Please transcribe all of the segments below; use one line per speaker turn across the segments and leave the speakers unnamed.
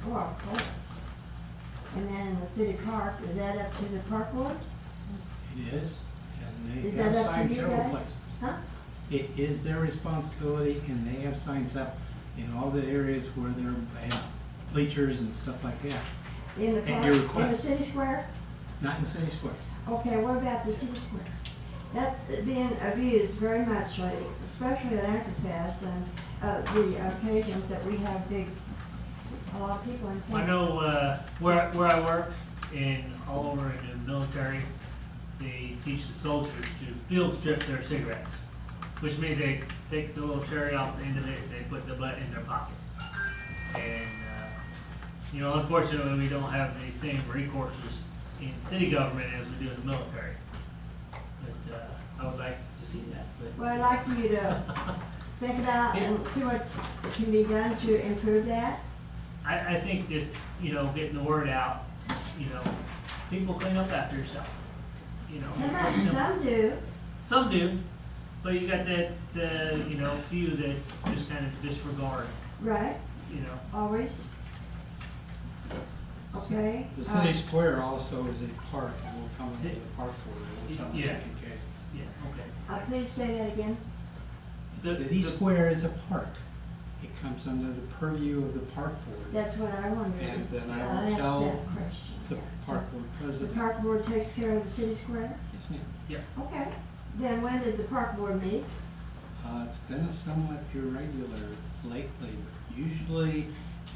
for our parks. Oh, And then in the city park, is that up to the park board?
It is, and
Is
they
that
have
up to
signs
you
several
guys?
places.
Huh?
It is their responsibility, and they have signs up in all the areas where there are bleachers and stuff like that,
In the
At
park,
your
in the
request.
city square?
not in City Square.
Okay, what about the city square? That's being abused very much lately, especially at Anchorage and, uh, the occasions that we have big, a lot of people in
I
town.
know, uh, where, where I work and all over in the military, they teach the soldiers to field strip their cigarettes. Which means they take the little cherry off the end of it and they put the butt in their pocket. And, uh, you know, unfortunately, we don't have the same recourses in city government as we do in the military. But, uh, I would like to see that, but.
Well, I'd like for you to think about and see what can be done to improve that.
I, I think just, you know, getting the word out, you know, people clean up after yourself, you know. it's
Some,
simple.
some do,
Some do, but you got that, the, you know, few that just kind of disregard,
right,
you know.
always. Okay.
The
uh,
City Square also is a park, and we'll come into the park for it, we'll tell them to
Yeah.
take care.
Yeah, okay.
Uh, please say that again.
The-
City
the-
Square is a park. It comes under the purview of the park board.
That's what I wondered.
And then I
I'll
will
ask
tell
that question,
The
yeah.
park board
The
president,
park board takes care of the city square?
yes ma'am.
Okay. Then when does the park board meet?
Uh, it's been a somewhat irregular lately, but usually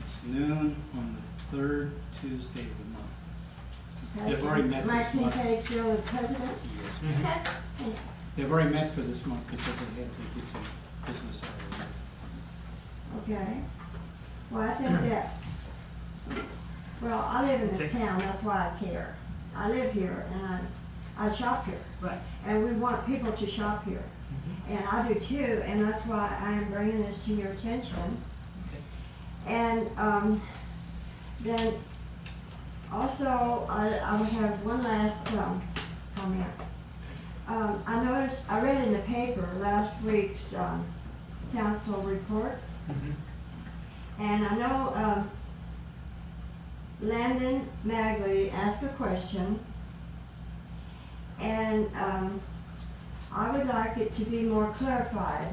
it's noon on the third Tuesday of the month.
Okay.
They've already met
Mike
this month.
Kincaid still the president?
Yes, ma'am.
Mhm.
Okay.
They've already met for this month because they had to get some business out of it.
Okay. Well, I think that, well, I live in this
Okay.
town, that's why I care. I live here and I, I shop here.
Right.
And we want people to shop here. And I do too, and that's why I am bringing this to your attention.
Okay.
And um, then also, I, I have one last um, comment. Um, I noticed, I read in the paper last week's um, council report,
Mhm.
and I know um, Landon Magley asked a question, and um, I would like it to be more clarified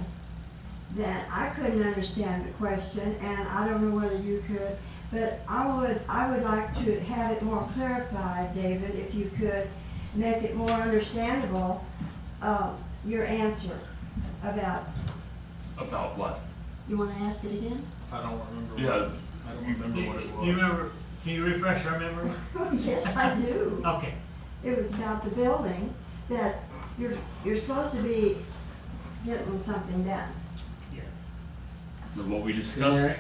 that I couldn't understand the question, and I don't know whether you could, but I would, I would like to have it more clarified, David, if you could, make it more understandable, uh, your answer about,
About what?
you wanna ask it again?
I don't remember. what-
Yeah.
I don't remember what it
You-
was.
You remember, can you refresh our memory?
Oh, Yes, I do.
Okay,
It was about the building, that you're, you're supposed to be getting something done.
yes.
What we discussed?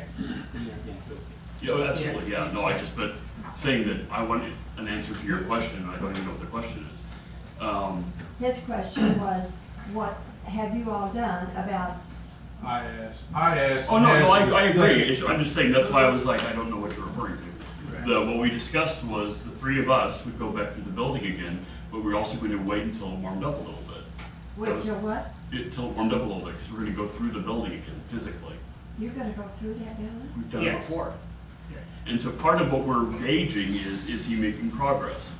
Yeah, oh, absolutely, yeah, no, I just, but saying that I wanted an answer to your question, I don't even know what the question is. Um,
His question was, what have you all done about,
I asked. I asked.
oh, no, no, I,
Nancy
I
the
agree,
second.
It's- I'm just saying, that's why I was like, I don't know what you're referring to. The, what we discussed was the three of us would go back through the building again, but we're also going to wait until it warmed up a little bit.
wait
was-
till what?
Until it warmed up a little bit, because we're going to go through the building again physically.
You're gonna go through that building?
We've done it
Yes.
before.
Yeah.
And so part of what we're gauging is, is he making progress?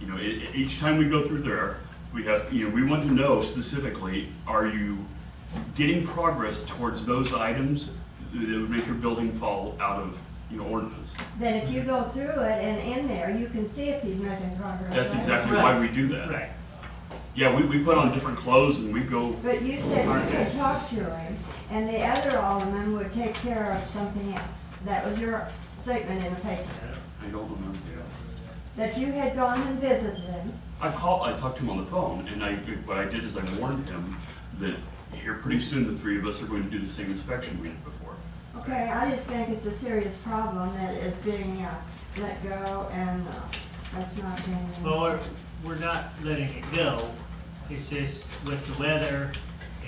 You know, e- each time we go through there, we have, you know, we want to know specifically, are you getting progress towards those items that would make your building fall out of, you know, ordinance?
Then if you go through it and in there, you can see if he's making progress.
That's
right?
exactly why we do that.
Right,
Yeah, we, we put on different clothes and we go,
But you said you could talk to him, and the other alderman would take care of something else. That was your statement in the paper,
I don't remember.
that you had gone and visited him,
I called, I talked to him on the phone, and I, what I did is I warned him that here, pretty soon, the three of us are going to do the same inspection we did before.
Okay, I just think it's a serious problem that is being uh, let go and uh, that's not being.
well, we're, we're not letting it go, it's just with the weather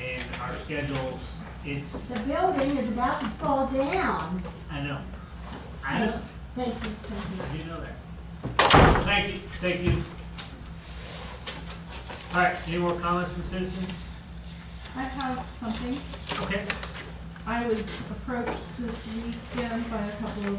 and our schedules, it's,
The building is about to fall down.
I know. I know.
Thank you, thank
Did you know that? Thank you, thank you. All right, any more comments from citizens?
I have something.
Okay.
I was approached this weekend by a couple of